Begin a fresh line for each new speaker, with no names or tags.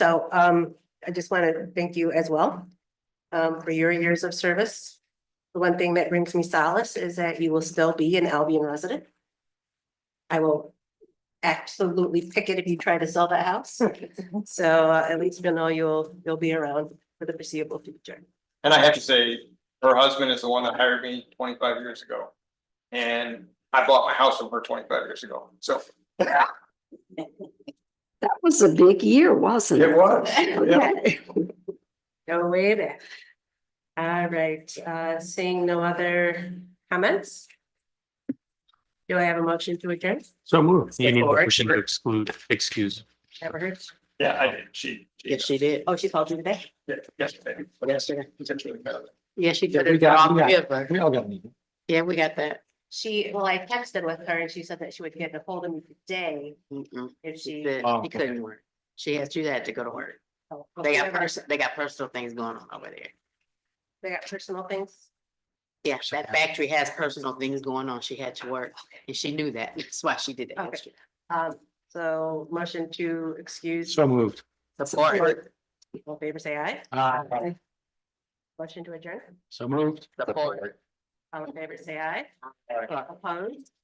So um, I just want to thank you as well um, for your years of service. The one thing that brings me solace is that you will still be an Albion resident. I will absolutely pick it if you try to sell that house. So uh, at least you know you'll, you'll be around for the foreseeable future.
And I have to say, her husband is the one that hired me twenty-five years ago. And I bought my house from her twenty-five years ago, so.
That was a big year, wasn't it?
was.
Okay.
Go way back. All right, uh, seeing no other comments? Do I have a motion to adjourn?
So moved. You need a
Or-
motion to exclude, excuse.
Never heard.
Yeah, I did, she.
Yes, she did.
Oh, she called you today?
Yeah, Yesterday.
Yesterday.
Potentially better.
Yeah, she
Yeah,
did
we
it for
got-
all
we got-
three of us.
We all got needed.
Yeah, we got that.
She, well, I texted with her and she said that she would get a hold of me today
Mm-mm.
if she.
She said
Oh,
she couldn't work. She has, she had to go to work.
oh,
They got
whatever.
person, they got personal things going on over there.
They got personal things.
Yeah,
So
that
that's-
factory has personal things going on. She had to work and she knew that. That's why she did that.
Okay.
yesterday.
Um, so motion to excuse.
So moved.
Support,
All in favor say aye.
Uh,
Motion to adjourn.
so moved.
support.
All in favor say aye.
Aye.
Opposed?